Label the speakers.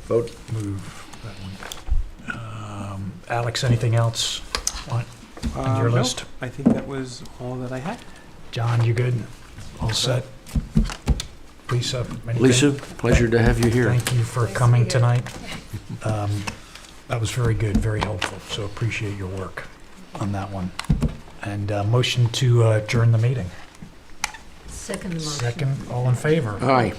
Speaker 1: vote.
Speaker 2: move that one. Um, Alex, anything else on
Speaker 3: Uh,
Speaker 2: on your
Speaker 4: Um, no,
Speaker 2: list?
Speaker 4: I think that was all that I had.
Speaker 2: John, you good? All set? Lisa? anything?
Speaker 3: Lisa, pleasure to have you here.
Speaker 2: Thank you for
Speaker 5: Nice to
Speaker 2: coming
Speaker 5: meet you.
Speaker 2: tonight. Um, That was very good, very helpful, so appreciate your work on that one. And uh, motion to uh, adjourn the meeting.
Speaker 5: Second motion.
Speaker 2: Second, all in favor?
Speaker 3: Hi.